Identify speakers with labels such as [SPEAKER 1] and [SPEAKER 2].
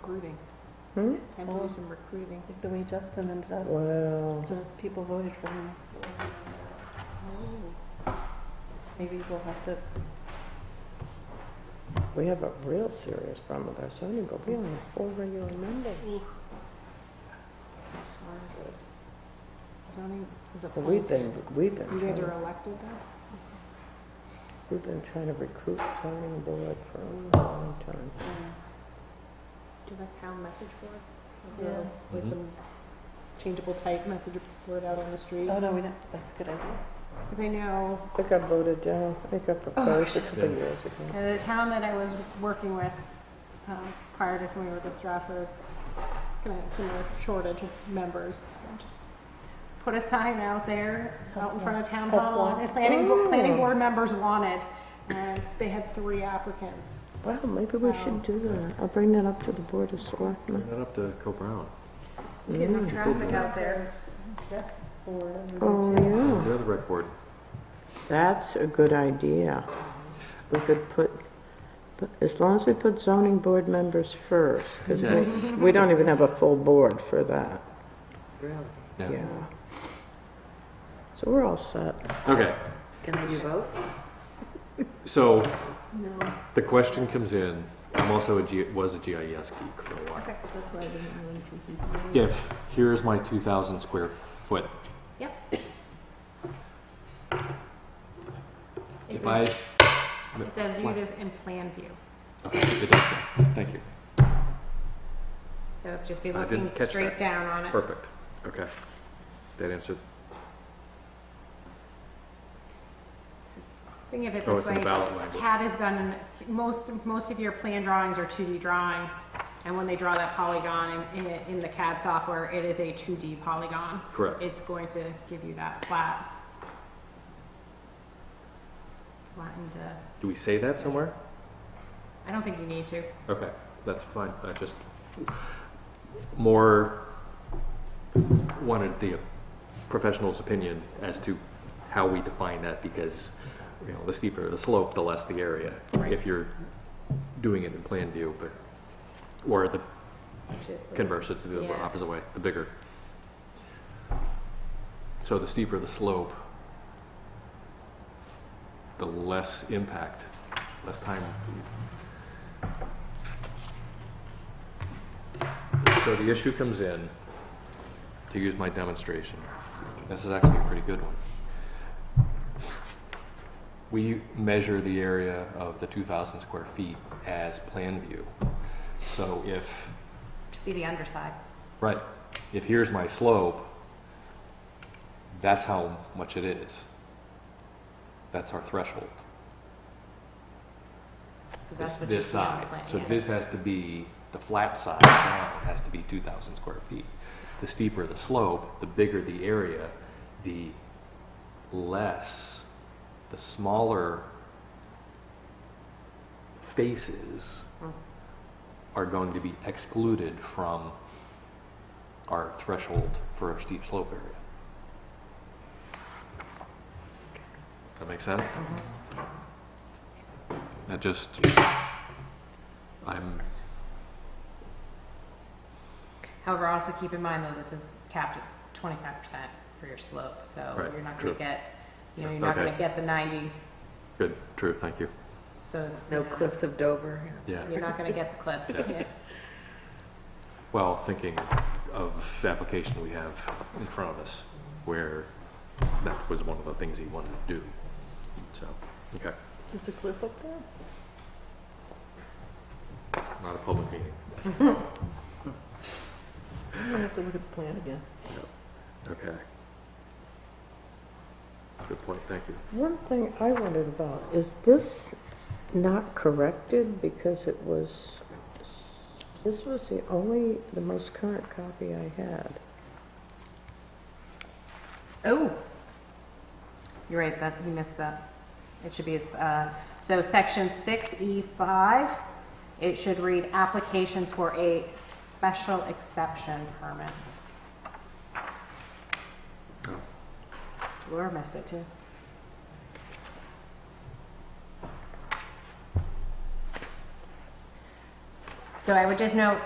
[SPEAKER 1] recruiting.
[SPEAKER 2] Hmm?
[SPEAKER 1] Time to do some recruiting.
[SPEAKER 3] Like the way Justin ended up,
[SPEAKER 2] Wow.
[SPEAKER 3] just people voted for him. Maybe we'll have to,
[SPEAKER 2] We have a real serious problem with our zoning board. We only have four regular members.
[SPEAKER 1] That's hard. Zoning is
[SPEAKER 2] But we've
[SPEAKER 1] appointed.
[SPEAKER 2] been, we've been,
[SPEAKER 1] You guys are
[SPEAKER 2] trying-
[SPEAKER 1] elected though?
[SPEAKER 2] we've been trying to recruit zoning board for a long time.
[SPEAKER 1] Do that town message board?
[SPEAKER 3] Yeah.
[SPEAKER 1] With the changeable type message board out on the street?
[SPEAKER 3] oh no, we don't, that's a good idea.
[SPEAKER 1] Because I know
[SPEAKER 2] I think I voted down, I
[SPEAKER 1] Oh.
[SPEAKER 2] think I proposed a couple of years ago.
[SPEAKER 1] Uh, The town that I was working with um, prior to when we were with Stratford, kind of similar shortage of members. Just Put a sign out there, out in front of town
[SPEAKER 3] Help
[SPEAKER 1] hall,
[SPEAKER 3] wanted.
[SPEAKER 1] planning, bo- planning
[SPEAKER 2] Ooh.
[SPEAKER 1] board members wanted. And they had three applicants.
[SPEAKER 2] Wow, maybe we should do that. I'll bring that up to the board of
[SPEAKER 4] Bring
[SPEAKER 2] selectmen.
[SPEAKER 4] that up to Co-Brown.
[SPEAKER 1] Get enough traffic out there.
[SPEAKER 2] Oh, yeah.
[SPEAKER 4] They're the rec board.
[SPEAKER 2] That's a good idea. We could put, but as long as we put zoning board members first, because we don't even have a full board for that. Yeah. So we're all set.
[SPEAKER 4] Okay,
[SPEAKER 5] Can they do both?
[SPEAKER 4] so
[SPEAKER 1] No,
[SPEAKER 4] the question comes in, I'm also a G, was a GIS geek for a while.
[SPEAKER 1] okay, that's why I didn't want to.
[SPEAKER 4] If, here's my two thousand square foot,
[SPEAKER 1] Yep. It
[SPEAKER 4] if I,
[SPEAKER 1] says- It says viewed as in plan view,
[SPEAKER 4] okay, it does say, thank you,
[SPEAKER 1] so just be
[SPEAKER 4] I
[SPEAKER 1] looking
[SPEAKER 4] didn't catch
[SPEAKER 1] straight
[SPEAKER 4] that.
[SPEAKER 1] down on it.
[SPEAKER 4] perfect, okay. That answered,
[SPEAKER 1] Think of it
[SPEAKER 4] oh,
[SPEAKER 1] this
[SPEAKER 4] it's in the
[SPEAKER 1] way.
[SPEAKER 4] ballot language.
[SPEAKER 1] CAD is done in, most, most of your plan drawings are 2D drawings, and when they draw that polygon in, in, in the CAD software, it is a 2D polygon.
[SPEAKER 4] Correct,
[SPEAKER 1] It's going to give you that flat. Flattened, uh,
[SPEAKER 4] do we say that somewhere?
[SPEAKER 1] I don't think you need to.
[SPEAKER 4] Okay, that's fine, I just, more wanted the professional's opinion as to how we define that, because, you know, the steeper the slope, the less the area, if you're doing it in plan view, but, or the converse, it's the
[SPEAKER 1] Yeah.
[SPEAKER 4] opposite way, the bigger. So the steeper the slope, the less impact, less time. So the issue comes in, to use my demonstration, this is actually a pretty good one. We measure the area of the 2,000 square feet as plan view. So if
[SPEAKER 1] Should be the underside.
[SPEAKER 4] Right. If here's my slope, that's how much it is. That's our threshold.
[SPEAKER 1] 'cause that's
[SPEAKER 4] This-
[SPEAKER 1] what you
[SPEAKER 4] this
[SPEAKER 1] see on the
[SPEAKER 4] side.
[SPEAKER 1] plan,
[SPEAKER 4] So
[SPEAKER 1] yeah.
[SPEAKER 4] this has to be, the flat side down has to be 2,000 square feet. The steeper the slope, the bigger the area, the less, the smaller faces
[SPEAKER 1] Mm.
[SPEAKER 4] are going to be excluded from our threshold for a steep slope area. That makes sense?
[SPEAKER 1] Mm-hmm.
[SPEAKER 4] That just, I'm,
[SPEAKER 1] However, also keep in mind though, this is capped at twenty-five percent for your slope, so
[SPEAKER 4] Right,
[SPEAKER 1] you're not
[SPEAKER 4] true.
[SPEAKER 1] gonna get, you know,
[SPEAKER 4] Yeah,
[SPEAKER 1] you're not
[SPEAKER 4] okay.
[SPEAKER 1] gonna get the ninety,
[SPEAKER 4] good, true, thank you.
[SPEAKER 1] so it's.
[SPEAKER 5] No
[SPEAKER 1] you know,
[SPEAKER 5] cliffs of Dover?
[SPEAKER 4] Yeah,
[SPEAKER 1] You're not gonna get the clips.
[SPEAKER 4] Yeah. well, thinking of the application we have in front of us, where that was one of the things he wanted to do, so, okay,
[SPEAKER 3] There's a cliff up there?
[SPEAKER 4] not a public meeting,
[SPEAKER 3] I'm gonna have to look at the plan again.
[SPEAKER 4] okay. Good point, thank you.
[SPEAKER 2] One thing I wondered about, is this not corrected because it was, this was the only, the most current copy I had.
[SPEAKER 1] Oh. You're right, that, you missed that. It should be, uh, so section six E five, it should read applications for a special exception permit.
[SPEAKER 4] Oh.
[SPEAKER 1] Laura missed it too. So I would just note,